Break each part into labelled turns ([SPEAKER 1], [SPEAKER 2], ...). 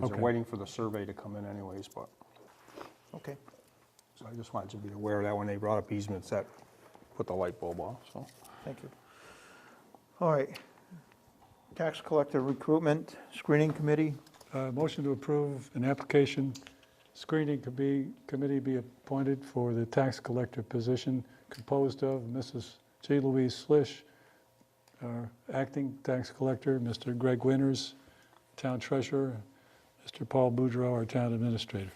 [SPEAKER 1] because they're
[SPEAKER 2] Okay.
[SPEAKER 1] waiting for the survey to come in anyways, but,
[SPEAKER 2] Okay.
[SPEAKER 1] so I just wanted you to be aware of that when they brought up easements, that put the light bulb on, so.
[SPEAKER 2] Thank you. All right. Tax collector recruitment screening committee.
[SPEAKER 3] Uh, Motion to approve an application screening could be, committee be appointed for the tax collector position composed of Mrs. J. Louise Slish, our acting tax collector, Mr. Greg Winters, town treasurer, Mr. Paul Boudreau, our town administrator.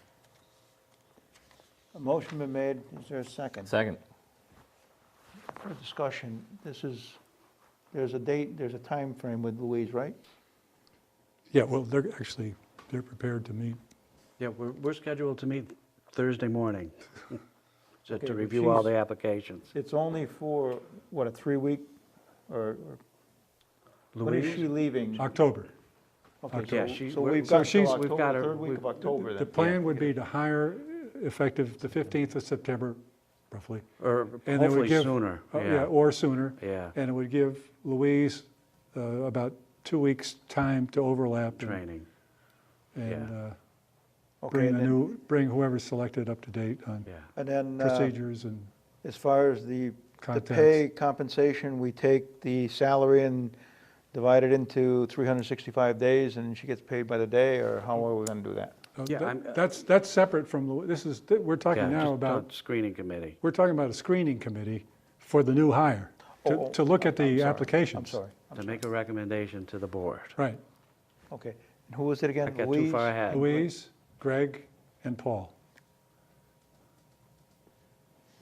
[SPEAKER 2] A motion been made. Is there a second?
[SPEAKER 4] Second.
[SPEAKER 2] For discussion, this is, there's a date, there's a time frame with Louise, right?
[SPEAKER 3] Yeah, well, they're actually, they're prepared to meet.
[SPEAKER 5] Yeah, we're, we're scheduled to meet Thursday morning to,
[SPEAKER 2] Okay,
[SPEAKER 5] to
[SPEAKER 2] but
[SPEAKER 5] review all
[SPEAKER 2] she's-
[SPEAKER 5] the applications.
[SPEAKER 2] It's only for, what, a three-week or, or- when is she
[SPEAKER 5] Louise,
[SPEAKER 2] leaving?
[SPEAKER 3] October.
[SPEAKER 2] Okay, so-
[SPEAKER 5] Yeah, she-
[SPEAKER 2] So
[SPEAKER 5] we're-
[SPEAKER 2] we've
[SPEAKER 3] So
[SPEAKER 2] got till
[SPEAKER 3] she's-
[SPEAKER 5] We've
[SPEAKER 2] October,
[SPEAKER 5] got her-
[SPEAKER 2] third week of
[SPEAKER 5] we've-
[SPEAKER 2] October
[SPEAKER 3] The
[SPEAKER 2] then.
[SPEAKER 3] plan would be to hire effective the 15th of September, roughly.
[SPEAKER 5] or
[SPEAKER 3] And it would
[SPEAKER 5] hopefully
[SPEAKER 3] give-
[SPEAKER 5] sooner,
[SPEAKER 3] uh, Yeah,
[SPEAKER 5] yeah,
[SPEAKER 3] or sooner.
[SPEAKER 5] yeah,
[SPEAKER 3] And it would give Louise uh, about two weeks' time to overlap. and-
[SPEAKER 5] training,
[SPEAKER 3] And
[SPEAKER 5] yeah.
[SPEAKER 3] uh,
[SPEAKER 2] Okay,
[SPEAKER 3] bring
[SPEAKER 2] and
[SPEAKER 3] the
[SPEAKER 2] then-
[SPEAKER 3] new, bring whoever's selected up to date on
[SPEAKER 5] yeah.
[SPEAKER 2] And then, uh,
[SPEAKER 3] procedures and
[SPEAKER 2] as far as the, the
[SPEAKER 3] Contacts.
[SPEAKER 2] pay compensation, we take the salary and divide it into 365 days, and she gets paid by the day, or how are we gonna do that?
[SPEAKER 3] uh,
[SPEAKER 5] Yeah,
[SPEAKER 3] that-
[SPEAKER 5] I'm, uh,
[SPEAKER 3] that's, that's separate from, Lou- this is, th- we're
[SPEAKER 5] Yeah,
[SPEAKER 3] talking now
[SPEAKER 5] just
[SPEAKER 3] about,
[SPEAKER 5] don't- Screening committee.
[SPEAKER 3] we're talking about a screening committee for the new hire,
[SPEAKER 2] Oh,
[SPEAKER 3] to,
[SPEAKER 2] oh,
[SPEAKER 3] to look at
[SPEAKER 2] I'm- I'm
[SPEAKER 3] the
[SPEAKER 2] sorry,
[SPEAKER 3] applications.
[SPEAKER 2] I'm sorry,
[SPEAKER 5] to make a recommendation to the board.
[SPEAKER 3] Right.
[SPEAKER 2] okay. And who was it
[SPEAKER 5] I
[SPEAKER 2] again?
[SPEAKER 5] got too
[SPEAKER 2] Louise?
[SPEAKER 5] far ahead.
[SPEAKER 3] Louise, Greg, and Paul.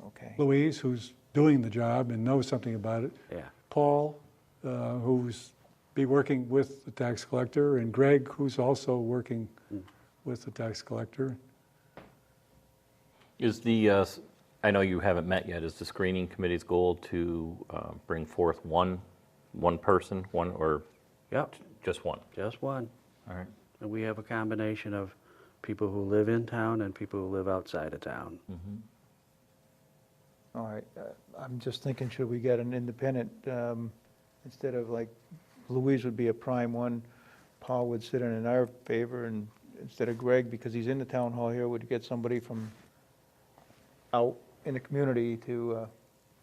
[SPEAKER 2] Okay,
[SPEAKER 3] Louise, who's doing the job and knows something about it,
[SPEAKER 5] Yeah,
[SPEAKER 3] Paul, uh, who's be working with the tax collector, and Greg, who's also working with the tax collector.
[SPEAKER 4] Is the, uh, s- I know you haven't met yet, is the screening committee's goal to uh, bring forth one, one person, one, or
[SPEAKER 5] yep,
[SPEAKER 4] just one?
[SPEAKER 5] just one.
[SPEAKER 4] All right.
[SPEAKER 5] And we have a combination of people who live in town and people who live outside of town.
[SPEAKER 2] all right. Uh, I'm just thinking, should we get an independent, um, instead of like, Louise would be a prime one, Paul would sit in in our favor, and instead of Greg, because he's in the town hall here, would get somebody from out in the community to, uh,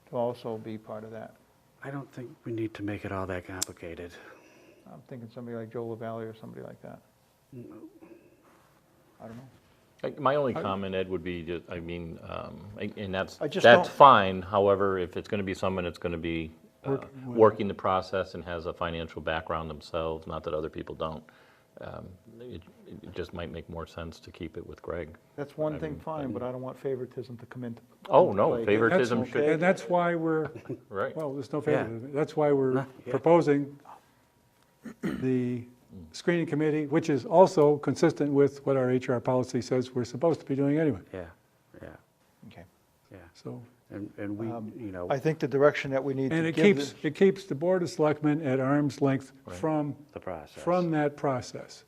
[SPEAKER 2] to also be part of that.
[SPEAKER 5] I don't think we need to make it all that complicated.
[SPEAKER 2] I'm thinking somebody like Joe LaValle or somebody like that. I don't know.
[SPEAKER 4] Like, My only comment, Ed, would be, ju- I mean, um, a- and that's,
[SPEAKER 2] I just
[SPEAKER 4] that's
[SPEAKER 2] don't-
[SPEAKER 4] fine, however, if it's gonna be someone that's gonna be uh,
[SPEAKER 3] Work-
[SPEAKER 4] working the process and has a financial background themselves, not that other people don't, um, it it just might make more sense to keep it with Greg.
[SPEAKER 2] That's one thing, fine, but I don't want favoritism to come into.
[SPEAKER 4] Oh,
[SPEAKER 2] into
[SPEAKER 4] no,
[SPEAKER 2] play.
[SPEAKER 3] That's-
[SPEAKER 4] favoritism should,
[SPEAKER 3] And that's why we're,
[SPEAKER 4] right.
[SPEAKER 3] well, there's no
[SPEAKER 5] Yeah.
[SPEAKER 3] favoritism. That's why we're
[SPEAKER 5] Huh, yeah.
[SPEAKER 3] proposing the screening committee, which is also consistent with what our HR policy says we're supposed to be doing anyway.
[SPEAKER 5] Yeah, yeah,
[SPEAKER 2] Okay.
[SPEAKER 5] yeah.
[SPEAKER 3] So,
[SPEAKER 5] And, and we,
[SPEAKER 2] Um,
[SPEAKER 5] you know,
[SPEAKER 2] I think the direction that we need
[SPEAKER 3] and
[SPEAKER 2] to
[SPEAKER 3] it
[SPEAKER 2] give
[SPEAKER 3] keeps,
[SPEAKER 2] this.
[SPEAKER 3] it keeps the Board of Selectmen at arm's length from,
[SPEAKER 5] the process.
[SPEAKER 3] from that process.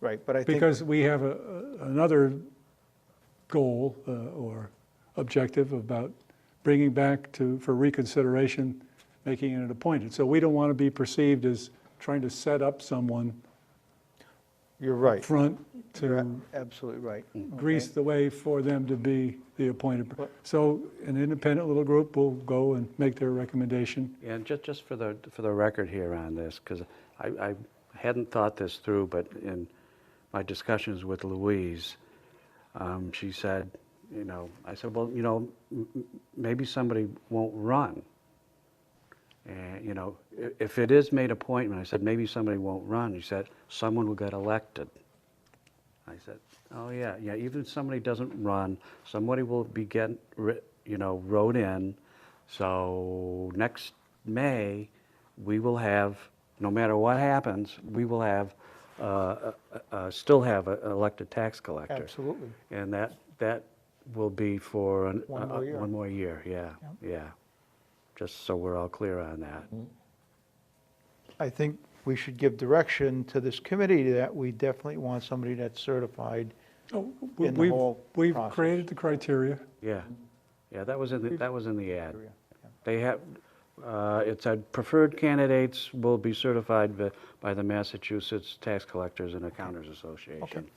[SPEAKER 2] Right, but I think.
[SPEAKER 3] Because we have a, a- another goal uh, or objective about bringing back to, for reconsideration, making it appointed. So we don't want to be perceived as trying to set up someone
[SPEAKER 2] You're right.
[SPEAKER 3] front
[SPEAKER 2] You're
[SPEAKER 3] to Mm.
[SPEAKER 2] a- absolutely right.
[SPEAKER 3] grease the way for them to be the appointed. per-
[SPEAKER 2] But-
[SPEAKER 3] So an independent little group will go and make their recommendation.
[SPEAKER 5] Yeah, and just, just for the, for the record here on this, because I, I hadn't thought this through, but in my discussions with Louise, um, she said, you know, I said, well, you know, m- m- maybe somebody won't run. And, you know, i- if it is made appointment, I said, maybe somebody won't run. She said, someone will get elected. I said, oh, yeah, yeah, even if somebody doesn't run, somebody will be getting, ri- you know, wrote in. So next May, we will have, no matter what happens, we will have, uh, uh, uh, still have a- an elected tax collector.
[SPEAKER 2] Absolutely.
[SPEAKER 5] And that, that will be for. an-
[SPEAKER 2] One
[SPEAKER 5] uh,
[SPEAKER 2] more year.
[SPEAKER 5] One more year, yeah, yeah. Just so we're all clear on that.
[SPEAKER 2] Mm-hmm. I think we should give direction to this committee that we definitely want somebody that's certified.
[SPEAKER 3] Oh,
[SPEAKER 2] In the
[SPEAKER 3] we've-
[SPEAKER 2] whole
[SPEAKER 3] We've
[SPEAKER 2] process.
[SPEAKER 3] created the criteria.
[SPEAKER 5] Yeah, yeah, that was in, the that was in the ad.
[SPEAKER 2] Area, yeah.
[SPEAKER 5] They have, Uh, It said preferred candidates will be certified by- by the Massachusetts Tax Collectors and Accountants Association.